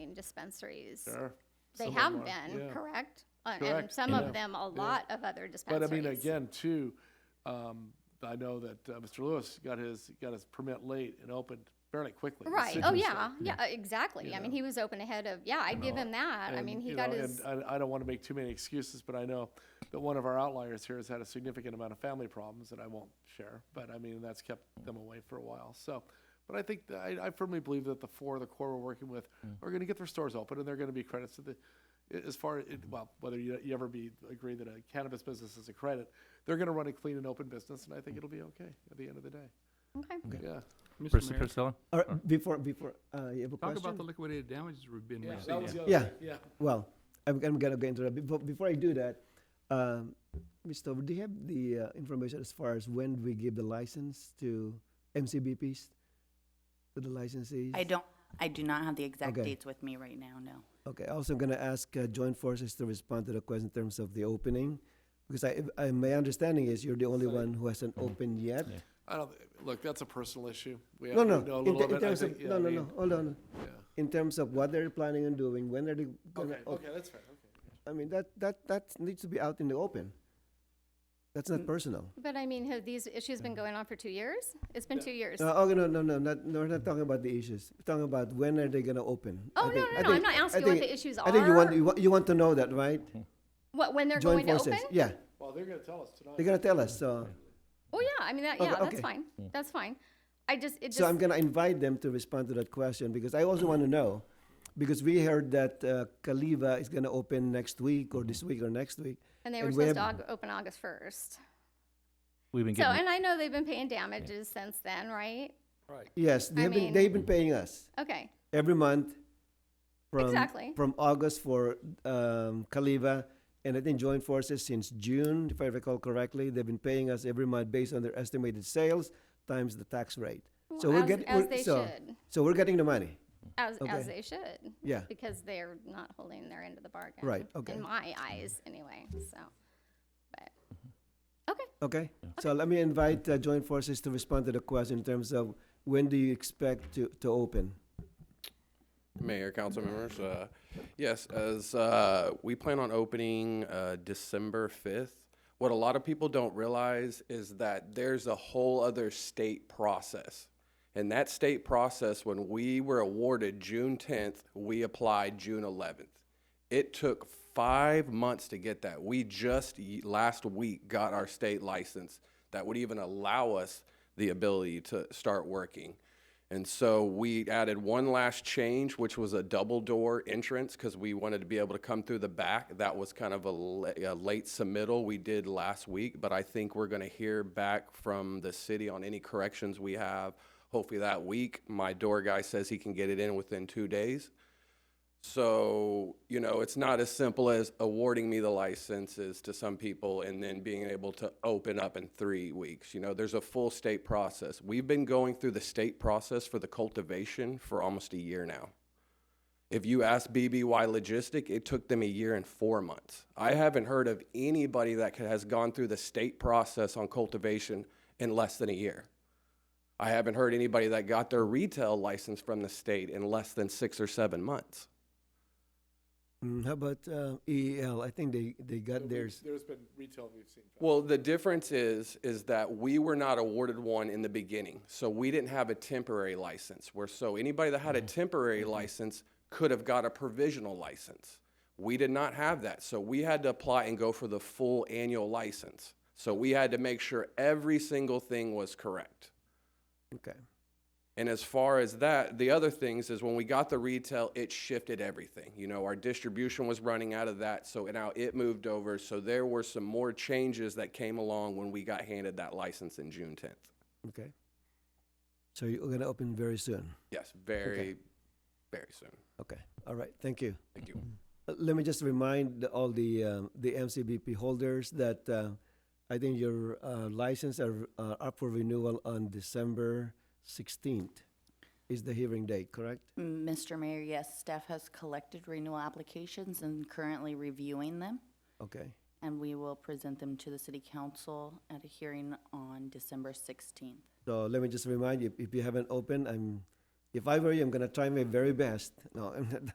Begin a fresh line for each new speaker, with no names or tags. dispensaries.
Sure.
They
Some of
have
them are,
been,
yeah.
correct? Uh, And
Correct.
some
Yeah.
of them, a lot of other
But I
dispensaries.
mean, again, too, um, I know that uh, Mr. Lewis got his, got his permit late and opened fairly quickly. the
Right, oh,
citrus
yeah,
stuff.
yeah, exactly. I mean, he was open ahead of, yeah, I give him that. I
And,
mean, he
you
got
know,
his,
And I, I don't want to make too many excuses, but I know that one of our outliers here has had a significant amount of family problems that I won't share. But I mean, that's kept them away for a while. So, but I think that I, I firmly believe that the four of the core we're working with
Mm.
are going to get their stores open, and they're going to be credits to the. i- As far it, well, whether you, you ever be agree that a cannabis business is a credit, they're going to run a clean and open business, and I think it'll be okay at the end of the day.
uh,
okay.
Yeah.
Mr.
Mr.
Mayor,
Priscilla?
All right, before, before, uh, you have a
Talk about the
question?
liquidated damages we've been
That was
receiving.
the other
Yeah.
thing, Yeah.
Well, I'm, I'm gonna go into that. Before, before I do that, um, Mr. Dover, do you have the uh, information as far as when we give the license to MCBPs? To the licensees?
I don't, I do not have the exact
Okay.
dates with me right now, no.
Okay, also I'm gonna ask uh, Joint Forces to respond to the question in terms of the opening. Because I, I, my understanding is you're the only one who hasn't
Mm-hmm.
opened yet.
Yeah.
I don't thi- look. That's a personal issue. We have
No,
to
no,
know a
in
little
te- in
bit. I
terms
think,
of,
yeah,
no,
I
no,
mean,
no, hold on.
Yeah.
In terms of what they're planning on doing, when are they
Okay.
gonna
Okay. That's fair. Okay.
I mean, that, that, that needs to be out in the open. That's
Mm.
not personal.
But I mean, have these issues been going on for two years? It's been two years.
No, oh, no, no, no, not, no, we're not talking about the issues. We're talking about when are they gonna open?
Oh,
I
no,
think-
no,
I
no, I'm
think-
not
I
asking what
think-
the issues
I think you want,
are.
you want, you want to know that, right?
What, when they're
Joint
going to
forces.
open?
Yeah,
Well, they're going to tell us tonight.
they're gonna tell us, so,
Oh, yeah, I mean, that,
Okay,
yeah, that's
okay.
fine, that's fine. I just, it
so I'm
just,
gonna invite them to respond to that question, because I also wanna know. Because we heard that, uh, Kaliva is gonna open next week, or this week, or next week.
and they were
and we
supposed to
have-
aug- open August first.
We've been
So,
getting,
and I know they've been paying damages since then, right?
Yes,
I
they've been,
mean-
they've been paying us.
Okay,
every month from
Exactly.
from August for um, Kaliva, and I think joint forces since June, if I recall correctly. They've been paying us every month based on their estimated sales times the tax rate. so
Well,
we're
as-
getting
as
we're-
they
so,
should.
so we're getting the money.
as, as
Okay.
they should.
Yeah.
Because they're not holding their end of the bargain.
Right, okay.
In my eyes, anyway, so, but, okay.
Okay. So let me invite uh, joint forces to respond to the question in terms of when do you expect to, to open?
Mayor, council members, uh, yes, as, uh, we plan on opening, uh, December fifth. What a lot of people don't realize is that there's a whole other state process. And that state process, when we were awarded June tenth, we applied June eleventh. It took five months to get that. We just y- last week got our state license that would even allow us the ability to start working. And so we added one last change, which was a double door entrance because we wanted to be able to come through the back. That was kind of a, la- a late submittal we did last week, but I think we're going to hear back from the city on any corrections we have. Hopefully that week. My door guy says he can get it in within two days. So, you know, it's not as simple as awarding me the licenses to some people and then being able to open up in three weeks. You know, there's a full state process. We've been going through the state process for the cultivation for almost a year now. If you ask BBY Logistic, it took them a year and four months. I haven't heard of anybody that could- has gone through the state process on cultivation in less than a year. I haven't heard anybody that got their retail license from the state in less than six or seven months.
Mm, how about uh, EEL? I think they, they got theirs.
There's been retail we've seen.
Well, the difference is, is that we were not awarded one in the beginning, so we didn't have a temporary license. Where so anybody that had a temporary license could have got a provisional license. We did not have that, so we had to apply and go for the full annual license. So we had to make sure every single thing was correct.
Okay.
And as far as that, the other things is when we got the retail, it shifted everything. You know, our distribution was running out of that, so now it moved over. So there were some more changes that came along when we got handed that license in June 10th.
Okay. So you're going to open very soon.
Yes, very, very soon.
Okay. All right. Thank you.
Thank you.
Uh, Let me just remind the- all the um, the MCBP holders that uh, I think your uh, license are uh, up for renewal on December 16th is the hearing date, correct?
Mr. Mayor, yes, staff has collected renewal applications and currently reviewing them,
Okay.
and we will present them to the city council at a hearing on December sixteenth.
So let me just remind you, if you haven't opened, I'm, if I were you, I'm gonna try my very best. No, I'm not,